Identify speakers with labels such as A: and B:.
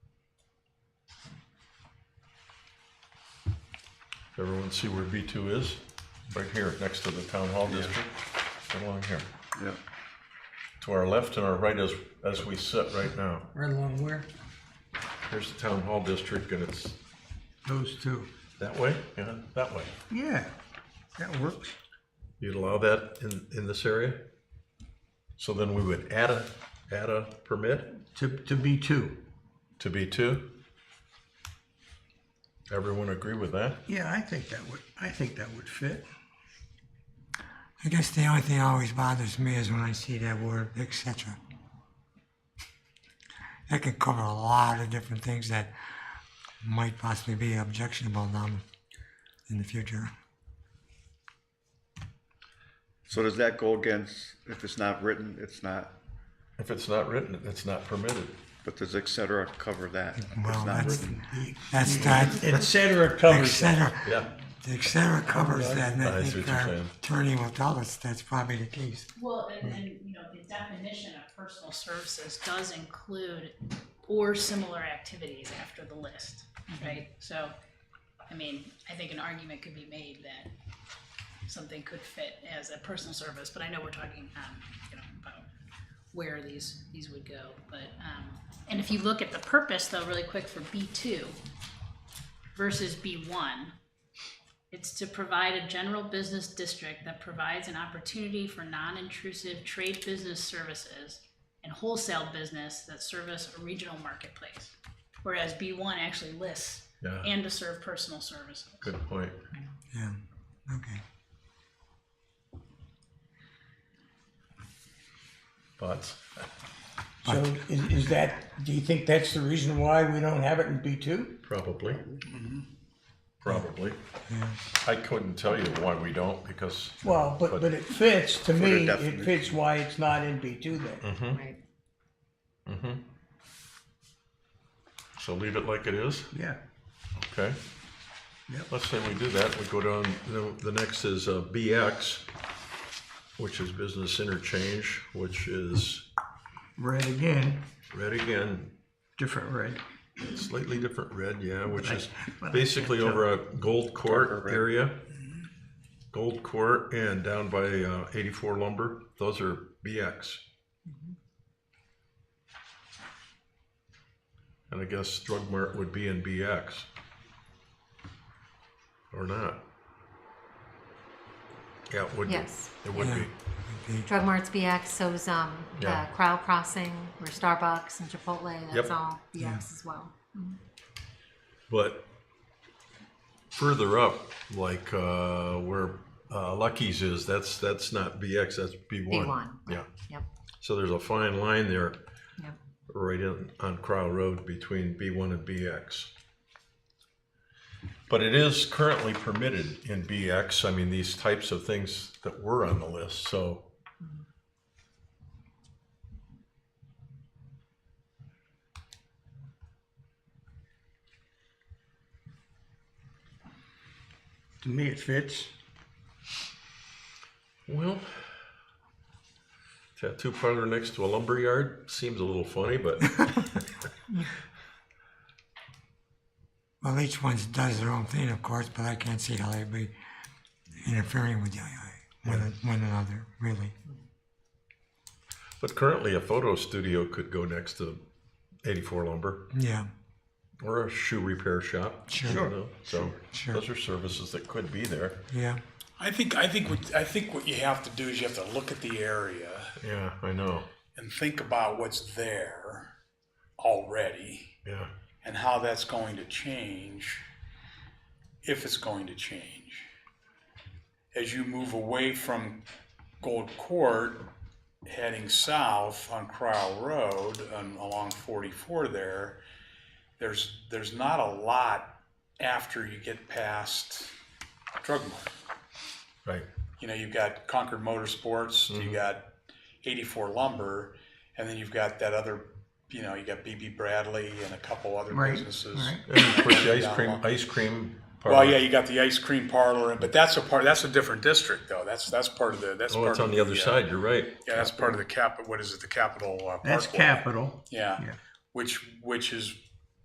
A: Everyone see where B2 is? Right here, next to the town hall district, right along here.
B: Yeah.
A: To our left and our right as, as we sit right now.
C: Right along where?
A: Here's the town hall district and it's
B: Those two.
A: that way, yeah, that way.
B: Yeah, that works.
A: You'd allow that in, in this area? So then we would add a, add a permit
B: To, to be two.
A: to B2? Everyone agree with that?
B: Yeah, I think that would, I think that would fit.
D: I guess the only thing that always bothers me is when I see that word etc. That could cover a lot of different things that might possibly be objectionable now in the future.
E: So does that go against, if it's not written, it's not,
A: If it's not written, it's not permitted.
E: but does et cetera cover that? if
D: Well,
E: It's not
D: that's,
E: written.
D: that's that,
B: Et cetera covers that.
D: etc.
A: Yeah.
D: etc. covers that, and
A: I
D: I
A: see what
D: think
A: you're
D: our
A: saying.
D: attorney will tell us that's probably the case.
F: Well, and, and, you know, the definition of personal services does include or similar activities after the list, right? So, I mean, I think an argument could be made that something could fit as a personal service, but I know we're talking, um, you know, about where these, these would go, but, um, and if you look at the purpose though, really quick for B two versus B one, it's to provide a general business district that provides an opportunity for non-intrusive trade business services and wholesale business that service a regional marketplace. Whereas B one actually lists
A: Yeah.
F: and to serve personal services.
A: Good point.
D: Yeah, okay.
A: Thoughts?
B: So is, is that, do you think that's the reason why we don't have it in B two?
A: Probably. Probably.
D: Yeah.
A: I couldn't tell you why we don't, because.
B: Well, but, but it fits, to
E: the
B: me, it
E: definition.
B: fits why it's not in B two then.
G: Right.
A: So leave it like it is,
B: Yeah.
A: okay?
B: Yep.
A: Let's say we do that, we go down, the- the next is uh, BX, which is business interchange, which is,
B: Red again,
A: red again,
B: different red.
A: slightly different red, yeah, which is
B: but I
A: basically
B: can't
A: over a Gold
E: Darker
A: Court
E: red. Mm-hmm.
A: area. Gold Court and down by uh, 84 Lumber, those are BX.
E: Mm-hmm.
A: And I guess Drug Mart would be in BX. Or not? Yeah, it would be.
G: Yes.
A: It would be.
D: Okay.
G: Drug Mart's BX, so's um,
A: Yeah.
G: the Crow Crossing, or Starbucks and Chipotle, that's
A: Yep.
G: all BX as well.
A: But further up, like uh, where uh, Lucky's is, that's that's not BX, that's B1.
G: B1,
A: Yeah.
G: Yep.
A: So there's a fine line there
G: Yep.
A: right in, on Crow Road between B1 and BX. But it is currently permitted in BX, I mean, these types of things that were on the list, so.
B: To me, it fits.
A: Well, tattoo parlor next to a lumber yard seems a little funny, but
D: Well, each one does their own thing, of course, but I can't see how they'd be interfering with the, one, one another, really.
A: But currently, a photo studio could go next to 84 Lumber
D: Yeah,
A: or a shoe repair shop. you
D: Sure.
A: know? So
D: Sure.
A: those are services that could be there.
D: yeah,
H: I think I think what I think what you have to do is you have to look at the area
A: Yeah, I know.
H: and think about what's there already
A: Yeah.
H: and how that's going to change if it's going to change. As you move away from Gold Court heading south on Crowell Road and along 44 there, there's there's not a lot after you get past Drug Mart
A: Right.
H: you know, you've got Concord Motorsports,
A: Mm-hmm.
H: you got 84 Lumber, and then you've got that other, you know, you got BB Bradley and a couple other
B: Right,
H: businesses.
B: right.
A: And of course, the ice cream, ice cream parlor.
H: Well, yeah, you got the ice cream parlor, and but that's a part. That's a different district, though. That's that's part of the. That's
A: Oh,
H: part
A: it's
H: of
A: on the other
H: uh,
A: side. You're right.
H: Yeah, that's part of the cap. What is it? The capital. Uh,
B: That's
H: Parkway.
B: capital.
H: Yeah.
B: Yeah.
H: which which is